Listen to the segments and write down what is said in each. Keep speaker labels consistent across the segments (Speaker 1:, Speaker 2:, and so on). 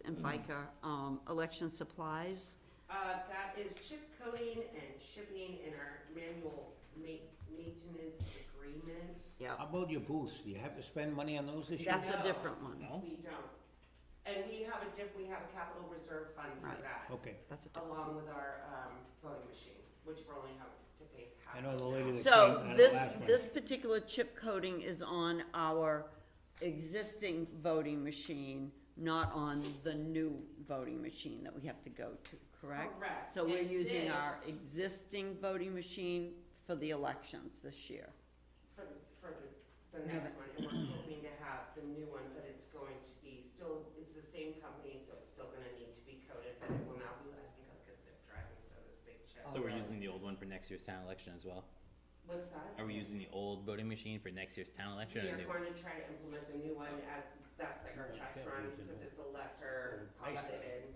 Speaker 1: and FICA, um, election supplies.
Speaker 2: Uh, that is chip coating and shipping in our manual ma- maintenance agreement.
Speaker 1: Yep,
Speaker 3: How about your booths? Do you have to spend money on those this year?
Speaker 1: that's a different one.
Speaker 3: No?
Speaker 2: We don't. And we have a diff, we have a capital reserve fund for
Speaker 1: Right.
Speaker 2: that,
Speaker 3: Okay.
Speaker 1: That's a different.
Speaker 2: along with our, um, voting machine, which we're only having to pay half.
Speaker 3: I know the lady that came
Speaker 1: So
Speaker 3: on the
Speaker 1: this,
Speaker 3: last one.
Speaker 1: this particular chip coating is on our existing voting machine, not on the new voting machine that we have to go to, correct?
Speaker 2: Correct.
Speaker 1: So we're
Speaker 2: And
Speaker 1: using our
Speaker 2: this-
Speaker 1: existing voting machine for the elections this year.
Speaker 2: For, the- for the, the next one, and we're hoping to have the new one, but it's going to be still, it's the same company, so it's still gonna need to be coated, but it will now be, I think, like a zip drive instead of this big chip.
Speaker 4: So we're using the old one for next year's town election as well?
Speaker 2: What's that?
Speaker 4: Are we using the old voting machine for next year's town
Speaker 2: We
Speaker 4: election or
Speaker 2: are
Speaker 4: new?
Speaker 2: going to try to implement the new one as, that's like our
Speaker 3: Yeah,
Speaker 2: test
Speaker 3: except
Speaker 2: run,
Speaker 3: we can
Speaker 2: because
Speaker 3: do-
Speaker 2: it's a lesser
Speaker 3: or make-
Speaker 2: outdated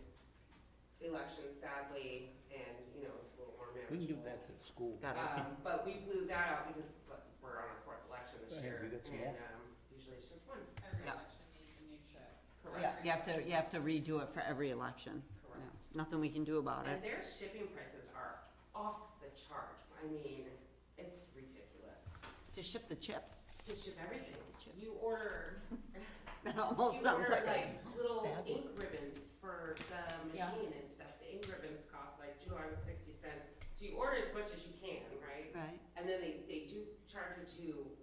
Speaker 2: election sadly, and, you know, it's a little more
Speaker 3: We can do
Speaker 2: manageable.
Speaker 3: that to the school.
Speaker 1: Got it?
Speaker 2: Um, but we blew that out because look, we're on our fourth election this
Speaker 3: Go
Speaker 2: year,
Speaker 3: ahead, we got some more.
Speaker 2: and, um, usually it's just one.
Speaker 5: Every
Speaker 1: Yeah.
Speaker 5: election needs a new chip.
Speaker 1: Yeah,
Speaker 2: Correct,
Speaker 1: you have to, you have to redo it for every election. Yeah,
Speaker 2: correct.
Speaker 1: Nothing we can do about
Speaker 2: And
Speaker 1: it.
Speaker 2: their shipping prices are off the charts, I mean, it's ridiculous,
Speaker 1: To ship the chip,
Speaker 2: to ship everything,
Speaker 1: Chip.
Speaker 2: you order
Speaker 1: that almost
Speaker 2: You
Speaker 1: sounds
Speaker 2: order
Speaker 1: like a
Speaker 2: like little
Speaker 1: bad
Speaker 2: ink ribbons for the
Speaker 1: Yeah.
Speaker 2: machine and stuff, the ink ribbons cost like two dollars and sixty cents. So you order as much as you can, right?
Speaker 1: Right,
Speaker 2: And then they, they do charge you to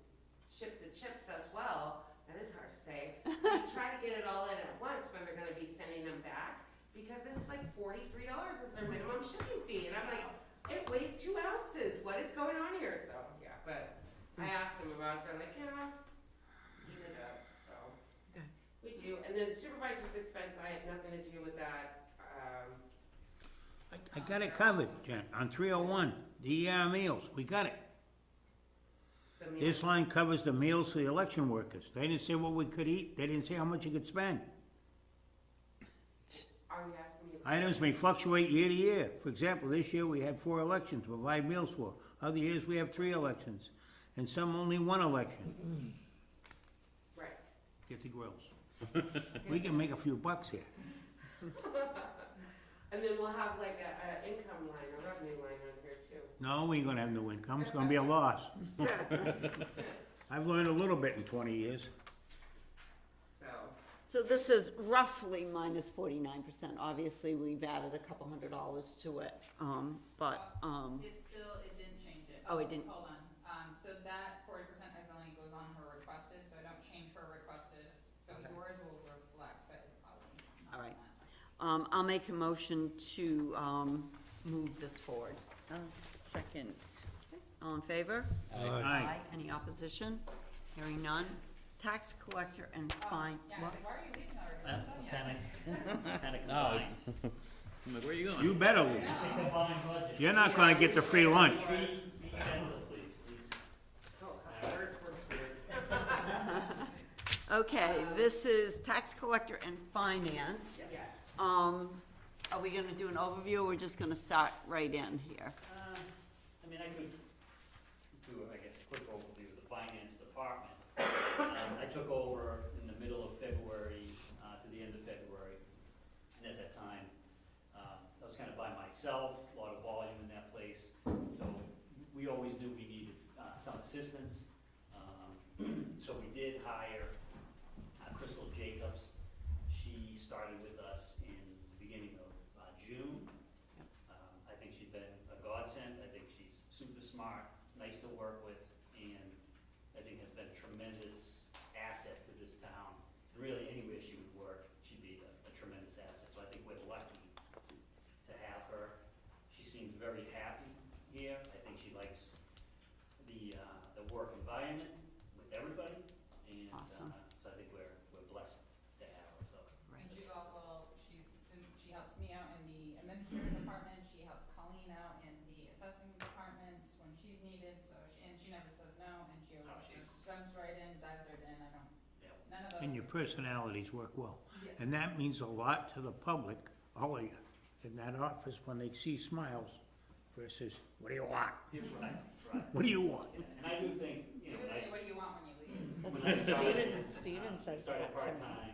Speaker 2: ship the chips as well, that is hard to say. So you try to get it all in at once when they're gonna be sending them back, because it's like forty-three dollars is their minimum shipping fee, and I'm like, it weighs two ounces, what is going on here? So, yeah, but I asked them about it, they're like, yeah, eat it up, so.
Speaker 1: Okay.
Speaker 2: We do, and then supervisor's expense, I have nothing to do with that, um,
Speaker 3: I- I got it covered, Jen, on three oh one, DER meals, we got it.
Speaker 2: the meal.
Speaker 3: This line covers the meals for the election workers. They didn't say what we could eat, they didn't say how much you could spend.
Speaker 2: Are you asking me?
Speaker 3: Items may fluctuate year to year. For example, this year we had four elections to provide meals for. Other years we have three elections, and some only one election.
Speaker 2: Right.
Speaker 3: Get the grills. We can make a few bucks here.
Speaker 2: And then we'll have like a, a income line, a revenue line on here too.
Speaker 3: No, we ain't gonna have no income, it's gonna be a loss. I've learned a little bit in twenty years.
Speaker 2: So,
Speaker 1: So this is roughly minus forty-nine percent. Obviously, we've added a couple hundred dollars to it, um, but, um,
Speaker 5: It's still, it didn't change it.
Speaker 1: Oh, it didn't.
Speaker 5: Hold on, um, so that forty percent is only goes on her requested, so I don't change her requested, so yours will reflect, but it's probably not
Speaker 1: All
Speaker 5: on
Speaker 1: right.
Speaker 5: that much.
Speaker 1: um, I'll make a motion to, um, move this forward. Second. All in favor?
Speaker 3: Aye.
Speaker 1: Any opposition? Hearing none. Tax collector and
Speaker 5: Oh,
Speaker 1: fine,
Speaker 5: Yeah, I was
Speaker 1: what?
Speaker 5: like, why are you leaving already?
Speaker 6: Uh,
Speaker 5: We're done yet.
Speaker 6: Kinda, kinda
Speaker 4: Oh,
Speaker 6: combined.
Speaker 4: it's- I'm like, where are you going?
Speaker 3: You better leave.
Speaker 6: It's a combined budget.
Speaker 3: You're not gonna get the free lunch.
Speaker 6: Be, be gentle, please, please.
Speaker 2: oh, words were weird.
Speaker 1: Okay, this is tax collector and finance.
Speaker 2: Yes.
Speaker 1: Um, are we gonna do an overview, or we're just gonna start right in here?
Speaker 6: Uh, I mean, I could do, I guess, a quick overview of the finance department. Um, I took over in the middle of February, uh, to the end of February, and at that time, uh, I was kind of by myself, a lot of volume in that place, so we always knew we needed, uh, some assistance. Um, So we did hire uh, Crystal Jacobs, she started with us in the beginning of uh, June. Um, I think she's been a godsend, I think she's super smart, nice to work with, and I think has been a tremendous asset to this town. Really, anywhere she would work, she'd be a a tremendous asset, so I think we're lucky to have her. She seems very happy here, I think she likes the, uh, the work environment with everybody, and, uh, so
Speaker 1: Awesome.
Speaker 6: I think we're, we're blessed to have her, so.
Speaker 5: And she's also, she's, been- she helps me out in the administrative department, she helps Colleen out in the assessing department when she's needed, so, she and she never says no, and she always
Speaker 6: Oh, she's-
Speaker 5: just jumps right in, dives right in, I don't,
Speaker 6: Yeah.
Speaker 5: none of us.
Speaker 3: And your personalities work well.
Speaker 5: Yes.
Speaker 3: And that means a lot to the public, all of you, in that office, when they see smiles versus, what do you want?
Speaker 6: Right, right,
Speaker 3: What do you want?
Speaker 6: Yeah, and I do think, you
Speaker 5: You just
Speaker 6: know, when I
Speaker 5: say, what do you want when you leave?
Speaker 6: When I started,
Speaker 7: Steven
Speaker 6: uh,
Speaker 7: says
Speaker 6: started
Speaker 7: that to me.
Speaker 6: part-time,